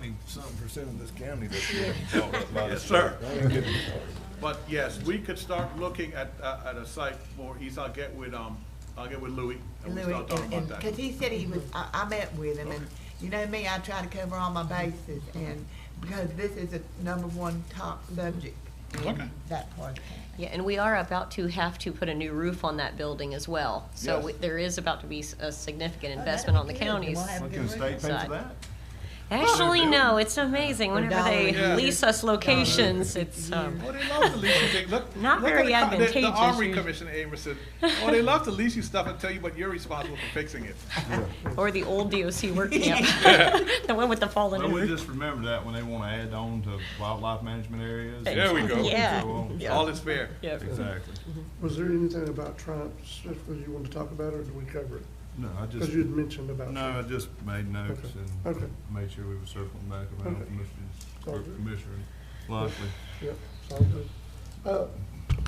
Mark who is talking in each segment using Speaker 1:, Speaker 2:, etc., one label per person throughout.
Speaker 1: ninety-something percent of this county that's getting bought up by the
Speaker 2: Yes, sir.
Speaker 1: state. I ain't getting-
Speaker 2: But yes, we could start looking at, uh, at a site more east. I'll get with, um, I'll get with Louis and we'll
Speaker 3: Louis,
Speaker 2: start talking about
Speaker 3: because
Speaker 2: that.
Speaker 3: he said he was, I, I met with him, and you know me, I try to cover all my bases, and because this is the number one top subject
Speaker 2: Okay.
Speaker 3: in that part of town.
Speaker 4: Yeah, and we are about to have to put a new roof on that building as well. So
Speaker 2: Yes.
Speaker 4: we- there is about to be s- a
Speaker 3: Oh,
Speaker 4: significant investment on the counties.
Speaker 3: Well,
Speaker 1: Well, Can the state pay for
Speaker 4: Side.
Speaker 1: that?
Speaker 4: Actually, no, it's amazing. Whenever they
Speaker 2: Yeah.
Speaker 4: lease us locations, it's, um,
Speaker 2: Oh, they love the leasing thing. Look.
Speaker 4: Not
Speaker 2: look at
Speaker 4: very
Speaker 2: the co- the- The
Speaker 4: advantageous,
Speaker 2: Armory
Speaker 4: you-
Speaker 2: Commission, Amerson. Oh, they love to lease you stuff and tell you, but you're responsible for fixing it.
Speaker 4: or the old DOC work camp, the one with the fallen
Speaker 1: Well, we
Speaker 4: roof.
Speaker 1: just remember that when they wanna add on to wildlife management areas. and
Speaker 2: There we go.
Speaker 1: so
Speaker 4: Yeah.
Speaker 1: on.
Speaker 4: Yeah.
Speaker 2: All is fair.
Speaker 4: Yep.
Speaker 1: Exactly.
Speaker 5: Was there anything about Triumph specifically you wanted to talk about, or did we cover it?
Speaker 1: No, I
Speaker 5: Because
Speaker 1: just,
Speaker 5: you had mentioned about.
Speaker 1: no, I just made notes
Speaker 5: Okay.
Speaker 1: and
Speaker 5: Okay.
Speaker 1: made sure we were circling back around
Speaker 5: Okay.
Speaker 1: with Commissioner,
Speaker 5: All
Speaker 1: or
Speaker 5: good.
Speaker 1: Commissioner Lockley.
Speaker 5: Yep, sounds good. Uh,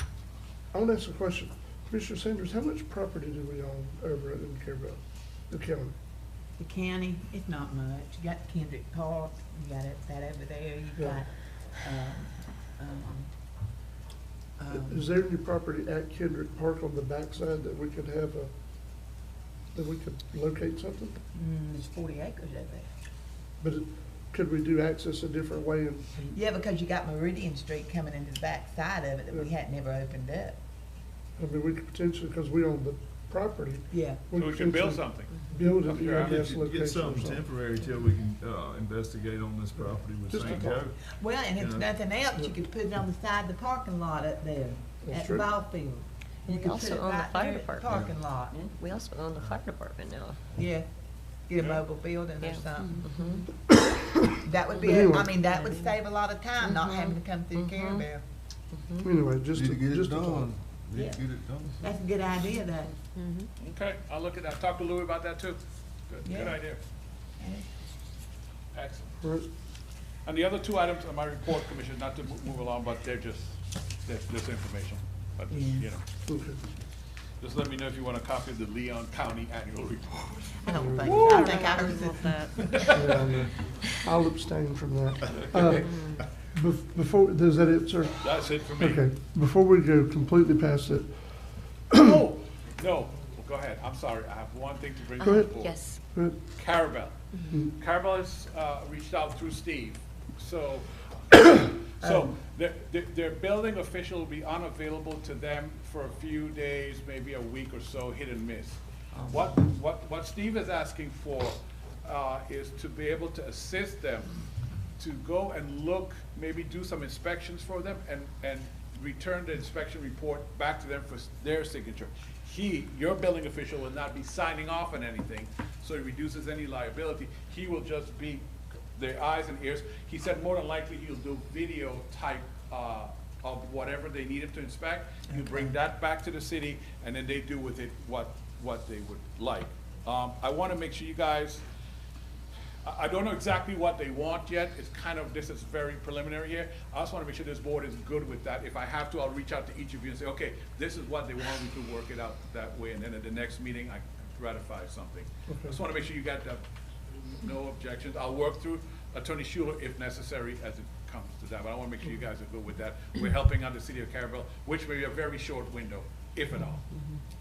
Speaker 5: I want to ask a question. Commissioner Sanders, how much property do we own over in Carabel, the county?
Speaker 6: The county, it's not much. You got Kendrick Park, you got it, that over there, you
Speaker 5: Yeah.
Speaker 6: got, um, um, um,
Speaker 5: Is there any property at Kendrick Park on the backside that we could have a, that we could locate something?
Speaker 6: mm, there's forty acres over there.
Speaker 5: But it- could we do access a different way and,
Speaker 6: Yeah, because you got Meridian Street coming into the back side of it that we had never opened up.
Speaker 5: I mean, we could potentially, because we own the property.
Speaker 6: Yeah.
Speaker 2: So we can build
Speaker 5: potentially
Speaker 2: something.
Speaker 5: Build
Speaker 2: Up
Speaker 5: an E
Speaker 2: here, I
Speaker 1: Get
Speaker 5: EMS
Speaker 1: you-
Speaker 5: location
Speaker 1: Get
Speaker 5: or
Speaker 1: something
Speaker 5: something.
Speaker 1: temporary till we can, uh, investigate on this property with
Speaker 5: Just a
Speaker 1: St.
Speaker 5: thought.
Speaker 1: Joe.
Speaker 6: Well, and if
Speaker 1: Yeah.
Speaker 6: nothing else, you could put it on the side of the parking lot up there,
Speaker 5: That's
Speaker 6: at the
Speaker 5: true.
Speaker 6: ball field. You could
Speaker 4: also
Speaker 6: put it
Speaker 4: own the
Speaker 6: right
Speaker 4: fire
Speaker 6: there at
Speaker 4: department.
Speaker 6: Parking lot,
Speaker 4: We also own the fire department now.
Speaker 6: yeah. Get a
Speaker 2: Yeah.
Speaker 6: mobile building
Speaker 4: Yeah.
Speaker 6: or something.
Speaker 4: Mhm.
Speaker 6: That would be,
Speaker 5: But
Speaker 6: a- I
Speaker 5: anyway.
Speaker 6: mean, that would save a lot of time, not having to come through Carabel.
Speaker 5: Anyway, just,
Speaker 1: Need
Speaker 5: a-
Speaker 1: to get it
Speaker 5: just a thought.
Speaker 1: done. Need to get it done.
Speaker 6: That's a good idea, though.
Speaker 2: Okay, I'll look at that. Talk to Louis about that too. Good, good
Speaker 6: Yeah.
Speaker 2: idea. Excellent.
Speaker 5: Right.
Speaker 2: And the other two items on my report, Commissioner, not to mo- move along, but they're just, that's, that's information. But, you know,
Speaker 5: Okay.
Speaker 2: just let me know if you want a copy of the Leon County Annual Report.
Speaker 3: I don't think, I think I was just
Speaker 5: Yeah, I know. I'll abstain from that. Uh, bef- Before, is that it, sir?
Speaker 2: That's it for
Speaker 5: Okay,
Speaker 2: me.
Speaker 5: before we go completely past it,
Speaker 2: Oh, no, well, go ahead. I'm sorry. I have one thing to bring to
Speaker 5: Go
Speaker 2: the
Speaker 5: ahead. Mm-hmm.
Speaker 2: board.
Speaker 4: Yes.
Speaker 5: uh,
Speaker 2: Carabel. Carabel has uh, reached out through Steve, so,
Speaker 5: Um.
Speaker 2: so their, their- their building official will be unavailable to them for a few days, maybe a week or so, hit and miss.
Speaker 5: Um.
Speaker 2: What, what, what Steve is asking for uh, is to be able to assist them to go and look, maybe do some inspections for them and, and return the inspection report back to them for s- their signature. He, your building official will not be signing off on anything, so it reduces any liability. He will just be their eyes and ears. He said more than likely he'll do video type, uh, of whatever they need him to inspect. You bring that back to the city and then they do with it what, what they would like. Um, I wanna make sure you guys, I, I don't know exactly what they want yet, it's kind of, this is very preliminary here. I just wanna make sure this board is good with that, if I have to, I'll reach out to each of you and say, okay, this is what they want, we could work it out that way, and then at the next meeting, I ratify something. I Just wanna make sure you got that, no objections, I'll work through Attorney Schuler if necessary as it comes to that, but I wanna make sure you guys are good with that. We're helping out the city of Carabel, which may be a very short window, if at all.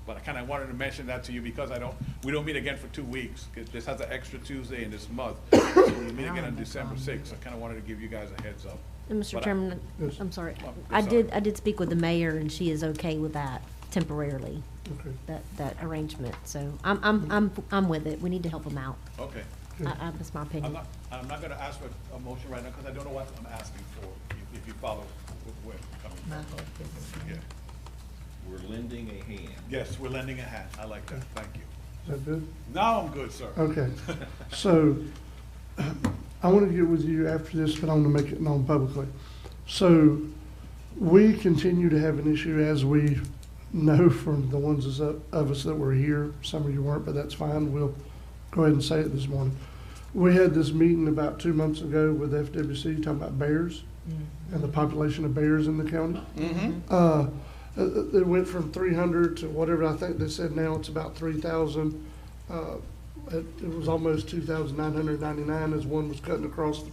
Speaker 2: But I kinda wanted to mention that to you because I don't, we don't meet again for two weeks, 'cause this has an extra Tuesday in this month. So we meet again on December sixth, I kinda wanted to give you guys a heads up.
Speaker 7: And Mr.
Speaker 2: But I-
Speaker 7: Chairman,
Speaker 5: Yes.
Speaker 7: I'm sorry.
Speaker 2: Oh,
Speaker 7: I
Speaker 2: sorry.
Speaker 7: did, I did speak with the mayor, and she is okay with that temporarily,
Speaker 5: okay.
Speaker 7: that, that arrangement. So I'm, I'm, I'm, I'm with it. We need to help them out.
Speaker 2: Okay,
Speaker 7: I, I, that's my
Speaker 2: I'm
Speaker 7: opinion.
Speaker 2: not, I'm not gonna ask for a motion right now, cause I don't know what I'm asking for, if- if you follow wh- where I'm coming from. Yeah.
Speaker 8: We're lending a hand.
Speaker 2: Yes, we're lending a hand, I like that, thank you.
Speaker 5: Is that good?
Speaker 2: Now I'm good, sir.
Speaker 5: Okay. So I want to get with you after this, but I want to make it known publicly. So we continue to have an issue as we know from the ones that's up- of us that were here. Some of you weren't, but that's fine. We'll go ahead and say it this morning. We had this meeting about two months ago with FWC talking about bears and the population of bears in the county. Uh, uh, it went from three hundred to whatever, I think they said now it's about three thousand. Uh, it, it was almost two thousand nine hundred ninety-nine as one was cutting across the